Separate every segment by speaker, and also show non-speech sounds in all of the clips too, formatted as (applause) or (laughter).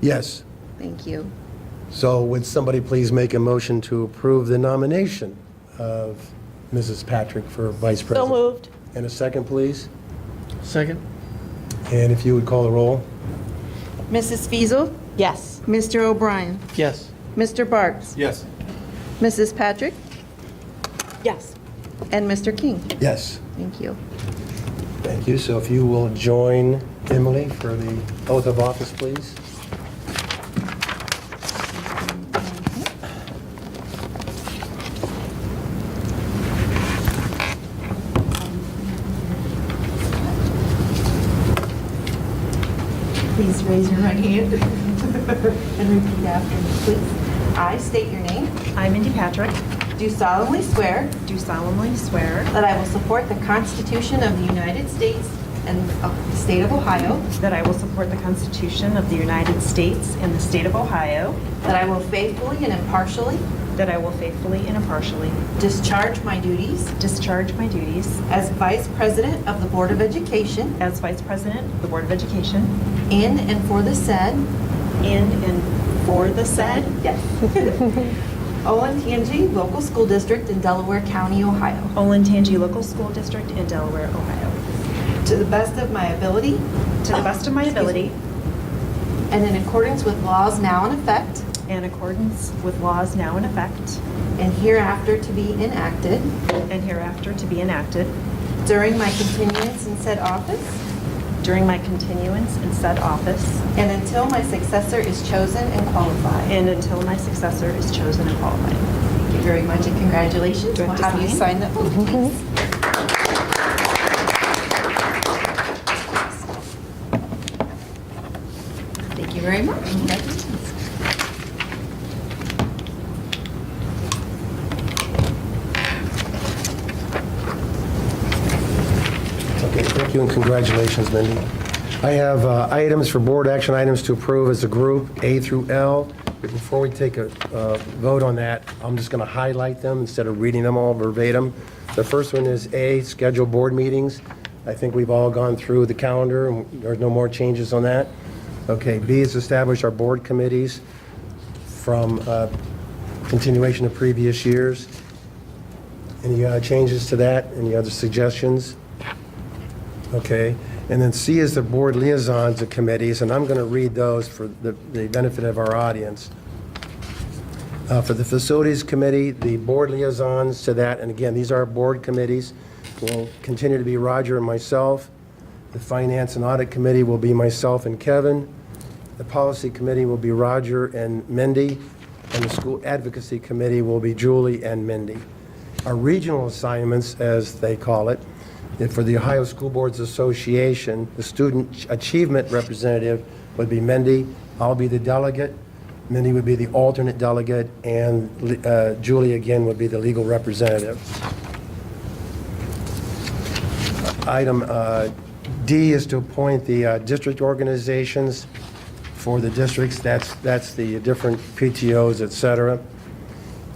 Speaker 1: Yes.
Speaker 2: Thank you.
Speaker 1: So would somebody please make a motion to approve the nomination of Mrs. Patrick for Vice
Speaker 3: So
Speaker 1: President?
Speaker 3: moved.
Speaker 1: And a second, please?
Speaker 4: Second?
Speaker 1: And if you would call the roll?
Speaker 2: Mrs. Fiesel,
Speaker 3: Yes.
Speaker 2: Mr. O'Brien,
Speaker 4: Yes.
Speaker 2: Mr. Barks,
Speaker 4: Yes.
Speaker 2: Mrs. Patrick,
Speaker 3: Yes.
Speaker 2: and Mr. King.
Speaker 1: Yes.
Speaker 2: Thank you.
Speaker 1: Thank you. So if you will join Emily for the oath of office, please?
Speaker 2: Please raise your right hand (laughs) and repeat after me, please. I state your name,
Speaker 5: I, Mindy Patrick,
Speaker 2: do solemnly swear
Speaker 5: do solemnly swear
Speaker 2: that I will support the Constitution of the United States and of the State of Ohio,
Speaker 5: that I will support the Constitution of the United States and the State of Ohio,
Speaker 2: that I will faithfully and impartially
Speaker 5: that I will faithfully and impartially
Speaker 2: discharge my duties
Speaker 5: discharge my duties
Speaker 2: as Vice President of the Board of Education
Speaker 5: as Vice President of the Board of Education
Speaker 2: in and for the said
Speaker 5: in and for the said
Speaker 2: (laughs) Yes. Olentangy Local School District in Delaware County, Ohio,
Speaker 5: Olentangy Local School District in Delaware, Ohio,
Speaker 2: to the best of my ability
Speaker 5: to the best of my ability
Speaker 2: and in accordance with laws now in effect
Speaker 5: and accordance with laws now in effect
Speaker 2: and hereafter to be enacted
Speaker 5: and hereafter to be enacted
Speaker 2: during my continuance in said office
Speaker 5: during my continuance in said office
Speaker 2: and until my successor is chosen and qualified.
Speaker 5: and until my successor is chosen and qualified.
Speaker 2: Thank you very much and congratulations.
Speaker 5: Do I
Speaker 2: We'll
Speaker 5: have to
Speaker 2: have you Mm-hmm. sign
Speaker 5: sign?
Speaker 2: that book, please. Thank you very much. Congratulations.
Speaker 1: Okay, thank you and congratulations, Mindy. I have uh, items for board action items to approve as a group, A through L. But Before we take a uh, vote on that, I'm just going to highlight them instead of reading them all verbatim. The first one is A, schedule board meetings. I think we've all gone through the calendar, and there's no more changes on that. Okay, B is establish our board committees from uh, continuation of previous years. Any uh, changes to that? Any other suggestions? Okay, and then C is the board liaisons and committees, and I'm going to read those for the the benefit of our audience. Uh, For the facilities committee, the board liaisons to that, and again, these are board committees, will continue to be Roger and myself. The finance and audit committee will be myself and Kevin. The policy committee will be Roger and Mindy, and the school advocacy committee will be Julie and Mindy. Our regional assignments, as they call it, if for the Ohio School Boards Association, the student achievement representative would be Mindy, I'll be the delegate, Mindy would be the alternate delegate, and uh, Julie again would be the legal representative. Item uh, D is to appoint the uh, district organizations for the districts. That's, that's the different PTOs, et cetera.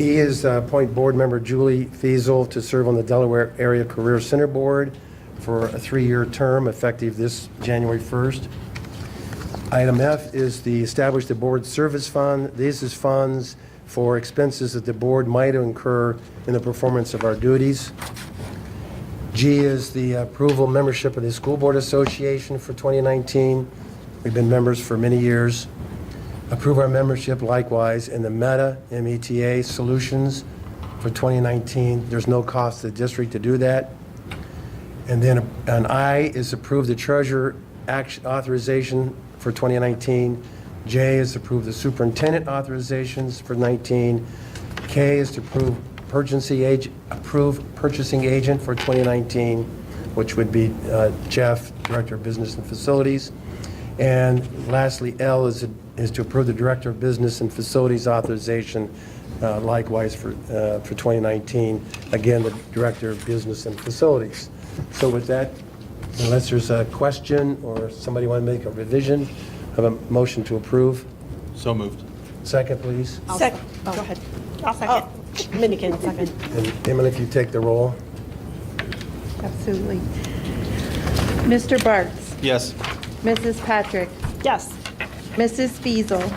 Speaker 1: E is uh, appoint board member Julie Fiesel to serve on the Delaware Area Career Center Board for a three-year term effective this January 1st. Item F is the establish the board service fund. This is funds for expenses that the board might incur in the performance of our duties. G is the approval membership of the School Board Association for 2019. We've been members for many years. Approve our membership likewise in the Meta, M-E-T-A, Solutions for 2019. There's no cost to the district to do that. And then an I is approve the treasurer action authorization for 2019. J is approve the superintendent authorizations for 19. K is to approve purchasing age, approve purchasing agent for 2019, which would be uh, Jeff, Director of Business and Facilities. And lastly, L is, is to approve the Director of Business and Facilities authorization uh, likewise for, uh, for 2019. Again, the Director of Business and Facilities. So with that, unless there's a question or somebody want to make a revision, have a motion to approve.
Speaker 4: So moved.
Speaker 1: Second, please.
Speaker 3: Second. Go ahead.
Speaker 5: I'll
Speaker 3: Oh, Mindy can second.
Speaker 1: And Emily, if you take the roll.
Speaker 2: Absolutely. Mr. Barks,
Speaker 4: Yes.
Speaker 2: Mrs. Patrick,
Speaker 3: Yes.
Speaker 2: Mrs. Feasel.